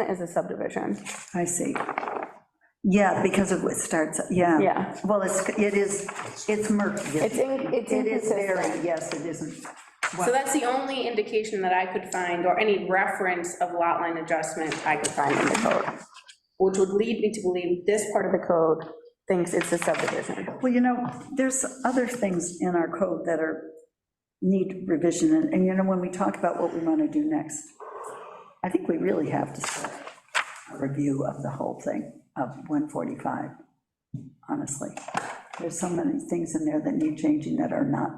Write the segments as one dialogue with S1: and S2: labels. S1: It is a subdivision.
S2: I see. Yeah, because of what starts, yeah.
S1: Yeah.
S2: Well, it's, it is, it's murky.
S1: It's in- it's
S2: It is very,
S1: inconsistent.
S2: yes, it isn't.
S1: So that's the only indication that I could find, or any reference of lot line adjustment I could find in the code, which would lead me to believe this part of the code thinks it's a subdivision.
S2: Well, you know, there's other things in our code that are, need revision, and, and you know, when we talk about what we want to do next, I think we really have to start a review of the whole thing, of 145, honestly. There's so many things in there that need changing that are not,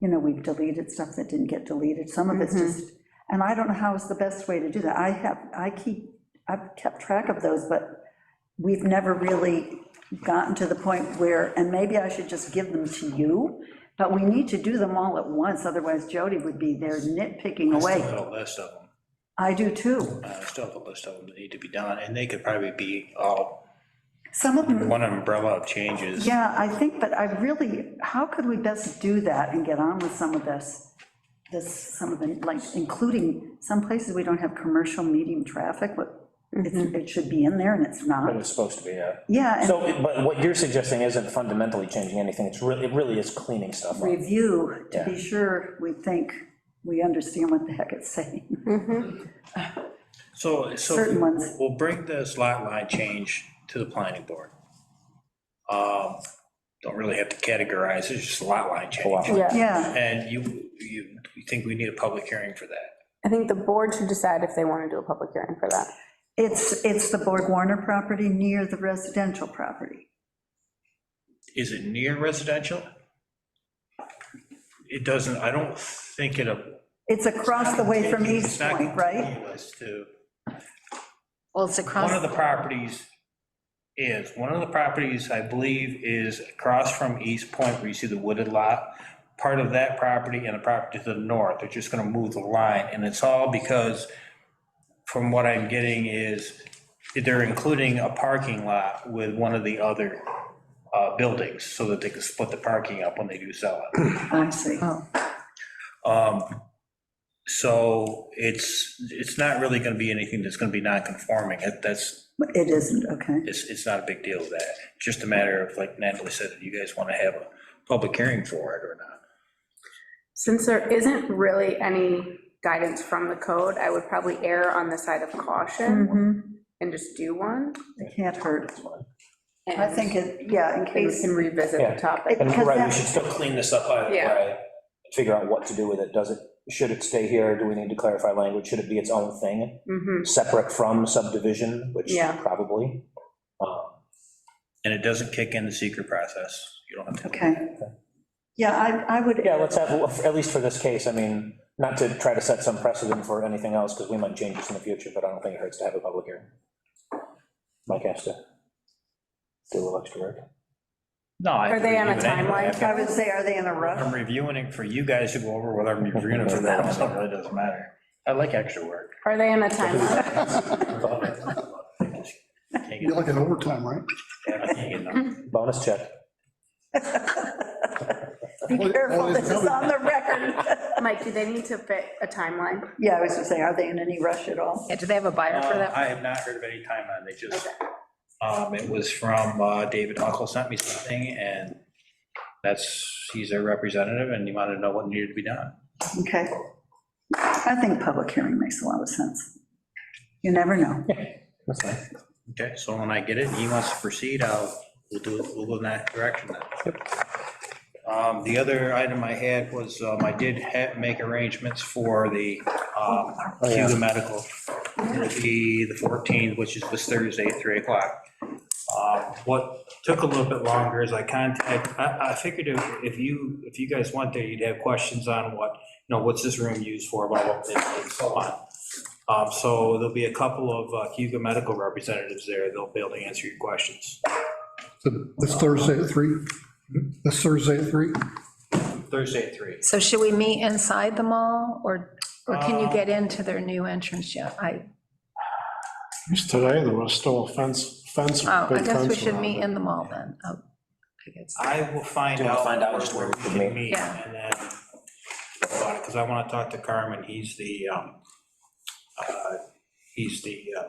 S2: you know, we've deleted stuff that didn't get deleted, some of it's just, and I don't know how is the best way to do that. I have, I keep, I've kept track of those, but we've never really gotten to the point where, and maybe I should just give them to you, but we need to do them all at once, otherwise Jody would be there nitpicking
S3: I still
S2: away.
S3: have a list of them,
S2: I do too.
S3: I still have a list of them that need to be done, and they could probably be all
S2: Some of them,
S3: one umbrella of changes.
S2: yeah, I think, but I really, how could we best do that and get on with some of this? This, some of the, like, including some places we don't have commercial medium traffic, but it's- it should be in there and it's
S4: But
S2: not.
S4: it's supposed to be, yeah.
S2: Yeah, and
S4: So, but what you're suggesting isn't fundamentally changing anything, it's really, it really is cleaning stuff up.
S2: review to be
S4: Yeah.
S2: sure we think we understand what the heck it's saying.
S1: Mm-hmm.
S3: So, so.
S2: Certain ones.
S3: We'll bring this lot line change to the planning board. Um, Don't really have to categorize, it's just a lot line change.
S4: Yeah.
S2: Yeah,
S3: And you, you you think we need a public hearing for that?
S1: I think the board should decide if they want to do a public hearing for that.
S2: it's, it's the Borg Warner property near the residential property.
S3: Is it near residential? It doesn't, I don't think it.
S2: It's across the way from East Point, right?
S3: To.
S5: Well, it's
S3: One of
S5: across,
S3: the properties is, one of the properties, I believe, is across from East Point where you see the wooded lot. Part of that property and a property to the north, they're just gonna move the line, and it's all because, from what I'm getting is, they're including a parking lot with one of the other uh, buildings, so that they can split the parking up when they do sell it.
S2: I see.
S5: Oh.
S3: Um, So it's, it's not really gonna be anything that's gonna be non-conforming, That- that's,
S2: It isn't, okay.
S3: it's, it's not a big deal with that. Just a matter of, like Natalie said, if you guys want to have a public hearing for it or not.
S1: Since there isn't really any guidance from the code, I would probably err on the side of caution
S2: Mhm,
S1: and just do one.
S2: It can't hurt.
S1: and
S2: I think it, yeah, in
S1: We
S2: case,
S1: can revisit
S4: Yeah.
S1: the topic.
S4: And
S2: Because
S4: right, we
S2: that-
S4: should still clean this up either
S1: Yeah.
S4: way, figure out what to do with it, does it, should it stay here, do we need to clarify language, should it be its own thing,
S1: Mhm.
S4: separate from subdivision, which
S1: Yeah.
S4: probably. Um,
S3: And it doesn't kick in the secret process. You don't have to.
S2: okay. Yeah, I, I would.
S4: Yeah, let's have, at least for this case, I mean, not to try to set some precedent for anything else, because we might change this in the future, but I don't think it hurts to have a public hearing. Mike has to do a little extra work.
S3: No. I
S1: Are they on a
S3: have to review it anyway.
S1: timeline?
S2: I would say, are they in a
S3: I'm
S2: rush?
S3: reviewing it for you guys to go over, whether I'm reviewing it for them, so it really doesn't matter. I like extra work.
S1: Are they in a timeline?
S3: Can't
S6: You
S3: get-
S6: like an overtime, right?
S3: I can't get enough.
S4: Bonus check.
S2: Be careful, this is on the record.
S1: Mike, do they need to fit a timeline?
S2: Yeah, I was gonna say, are they in any rush at all?
S5: yeah, do they have a buyer for
S3: Uh,
S5: that?
S3: I have not heard of any timeline. They just, um, it was from uh, David Uncle sent me something and that's, he's their representative and he wanted to know what needed to be done.
S2: Okay. I think public hearing makes a lot of sense. You never know.
S4: That's fine.
S3: Okay, so when I get it, and he wants to proceed, I'll, we'll do it, we'll go in that direction then. Um, The other item I had was, um, I did ha make arrangements for the um, Cuba Medical. It'll be the 14th, which is this Thursday at 3 o'clock. Um, What took a little bit longer is I contacted, I, I figured if if you, if you guys went there, you'd have questions on what, you know, what's this room used for, blah, blah, blah, and so on. Um, So there'll be a couple of uh, Hugo Medical representatives there. They'll be able to answer your questions.
S6: So This Thursday at three. This Thursday at three.
S3: Thursday at three.
S5: So should we meet inside the mall, or, or can you
S3: Uh,
S5: get into their new entrance yet? I,
S7: Just Today, there was still a fence, fence.
S5: oh, I
S7: big
S5: guess we
S7: fence
S5: should
S7: around
S5: meet
S7: it.
S5: in the mall then. Oh, I guess.
S3: I will find
S4: Do you wanna
S3: out.
S4: find out just where we can meet?
S3: meet
S5: Yeah.
S3: And then, because I want to talk to Carmen. He's the, um, uh, he's the uh,